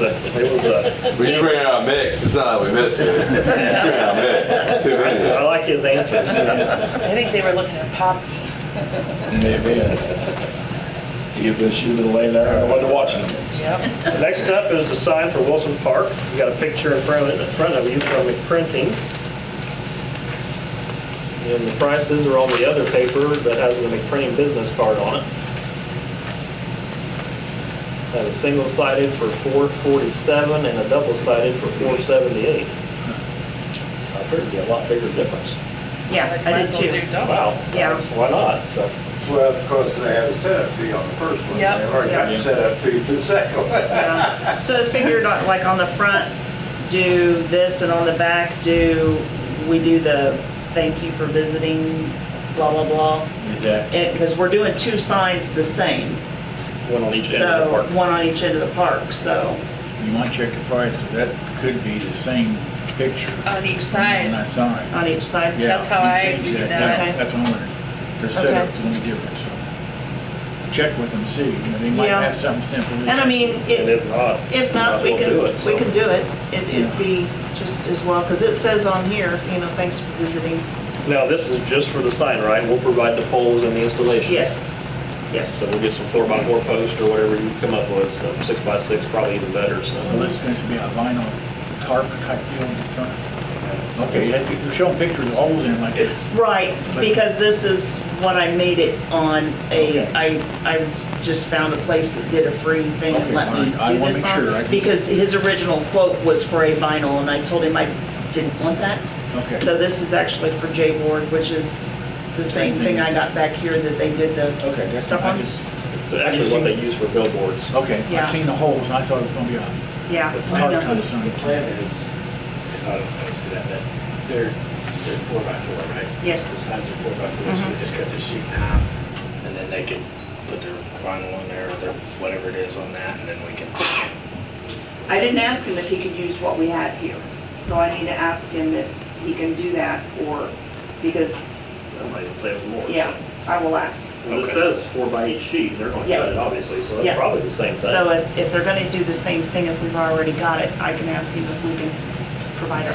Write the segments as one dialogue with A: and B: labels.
A: a, it was a.
B: We just ran out of mix. That's not how we missed it. We just ran out of mix. Too many.
A: I like his answers.
C: I think they were looking at pop.
D: Maybe. Give this shoe to the lane there, I wasn't watching him.
C: Yep.
A: Next up is the sign for Wilson Park. We got a picture in front of, in front of you from McPrinting. And the prices are on the other paper that has the McPrinting business card on it. Got a single sided for four forty-seven and a double sided for four seventy-eight. So I figured it'd be a lot bigger difference.
E: Yeah, I
C: Might
E: did
C: as well
E: too.
C: do double.
A: Wow.
E: Oh. Yeah.
A: that's- Why not? So,
F: Well, of course, they had a setup fee on the first one. They
C: Yep,
F: already got
E: yep.
F: a setup fee for the second one.
E: Yeah. So I figured on- like on the front, do this and on the back, do, we do the thank you for visiting, blah, blah, blah.
D: Exactly.
E: It, because we're doing two signs the same,
A: one on each end of the
E: so,
A: park.
E: one on each end of the park, so.
G: You might check the price, because that could be the same picture.
C: On each
G: On
C: side.
G: that side.
E: on each side?
G: Yeah,
C: That's how
G: you
C: I
G: can check
C: do
G: that.
C: that.
E: Okay.
G: That's what I'm wondering. Their setup's a little different, so check with them, see. You know, They might
E: Yeah.
G: have something simple.
E: And I mean,
A: And
E: it-
A: if not.
E: if not,
A: might as
E: we
A: well
E: can,
A: do it,
E: we
A: so.
E: can do it. It- It'd be just as well, because it says on here, you know, thanks for visiting.
A: Now, this is just for the sign, right? We'll provide the poles and the installation.
E: Yes, yes.
A: So we'll get some four by four posts or whatever you come up with, so six by six probably even better,
G: So
E: Mm-hmm.
A: so.
G: this is going to be a vinyl tarp type deal in the front. Okay,
E: It's-
G: that- you're showing pictures of holes in like this.
E: Right,
G: But-
E: because this is what I made it on a,
G: Okay.
E: I, I just found a place that did a free thing and
G: Okay,
E: let me
G: all right. I
E: do
G: wanna
E: this
G: make sure I
E: on.
G: can-
E: Because his original quote was for a vinyl and I told him I didn't want that.
G: Okay.
E: So this is actually for J Ward, which is the same
G: Same thing.
E: thing I got back here that they did
G: Okay,
E: the
G: that's-
E: stuff
G: I
E: on.
G: just-
A: It's actually what they use for billboards.
G: Okay,
E: Yeah.
G: I've seen the holes, and I thought it was going to be a
E: Yeah. I
G: tarp
E: know.
G: kind of something.
H: plan is, is not opposed to that, that they're, they're four by four, right?
E: Yes. Mm-hmm.
H: The signs are four by four, so they just cut the sheet in half, and then they can put their vinyl on there, or their, whatever it is on that, and then we can
E: I didn't ask him if he could use what we had here, so I need to ask him if he can do that or, because,
A: That might even save us more.
E: yeah, I will ask.
A: Well, it
H: Okay.
A: says four by each sheet, they're gonna cut
E: Yes.
A: it obviously, so
E: Yeah.
A: that's probably the same
E: So uh,
A: thing.
E: if, if they're gonna do the same thing, if we've already got it, I can ask him if we can provide our,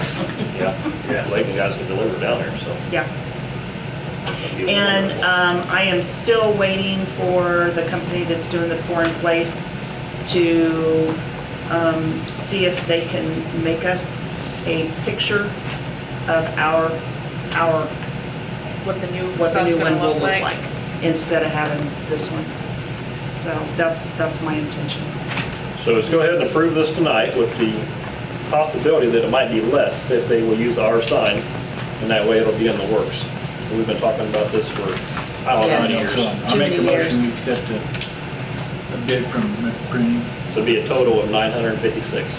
A: Yeah, yeah, Lakeland guys can deliver down there, so.
E: yeah.
A: it'll be
E: And,
A: wonderful.
E: um, I am still waiting for the company that's doing the pour in place to, um, see if they can make us a picture of our, our,
C: What the new
E: what the
C: stuff's
E: new one
C: gonna
E: will
C: look
E: look like,
C: like.
E: instead of having this one. So that's, that's my intention.
A: So let's go ahead and approve this tonight with the possibility that it might be less if they will use our sign, and that way it'll be in the works. We've been talking about this for, I don't know, how many
E: Yes.
A: years.
G: So I
E: Too
G: make
E: many
G: a
E: years.
G: motion, we accept a a bid from McPrinting.
A: So it'd be a total of 956.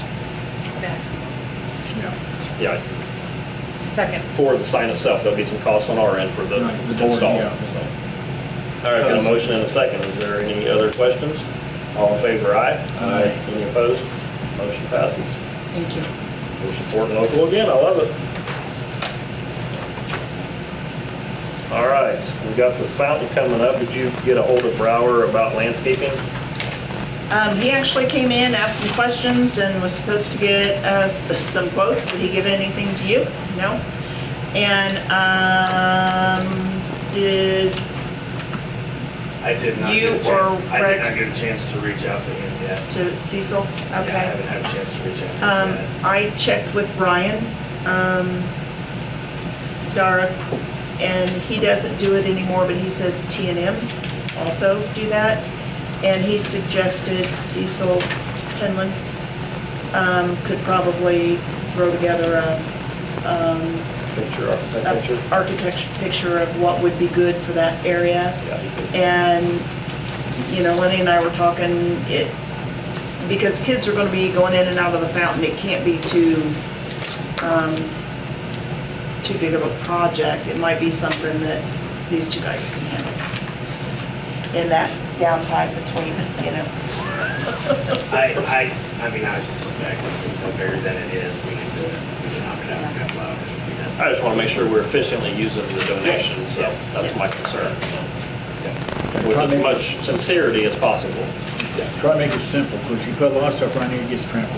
C: Maximum.
G: Yeah,
A: Yeah,
C: Second.
A: for the sign itself, there'll be some cost on our end for the
G: Right, the board,
A: install.
G: yeah. Uh,
A: so. All right, got a motion and a second. Is there any other questions? All in favor, aye?
G: Aye.
A: Any opposed? Motion passes.
E: Thank you.
A: We're supporting local again, I love it. All right, we've got the fountain coming up. Did you get a hold of Brower about landscaping?
E: Um, he actually came in, asked some questions, and was supposed to get us some quotes. Did he give anything to you? No? And, um, did,
H: I did not.
E: You
H: get a chance-
E: or
H: I did
E: Rex?
H: not get a chance to reach out to him yet.
E: to Cecil?
H: Yeah, I
E: Okay.
H: haven't had a chance to reach out to
E: Um,
H: him yet.
E: I checked with Ryan, um, Dara, and he doesn't do it anymore, but he says T and M also do that. And he suggested Cecil Penland, um, could probably throw together a, um,
A: Picture,
E: a
A: architect picture?
E: architecture picture of what would be good for that area.
A: Yeah, you can-
E: And, you know, Lenny and I were talking, it, because kids are gonna be going in and out of the fountain, it can't be too, um, too big of a project. It might be something that these two guys can handle in that downtime between, you know.
H: I, I, I mean, I suspect how bigger than it is, we can do it. We can knock it out in a couple hours. We'll be done.
A: I just want to make sure we're efficiently using the donation, so
H: yes,
A: that's my
E: yes,
A: concern.
E: yes.
A: With as much sincerity as possible.
G: try to make it simple, because you put a lot of stuff on here, it gets trampled.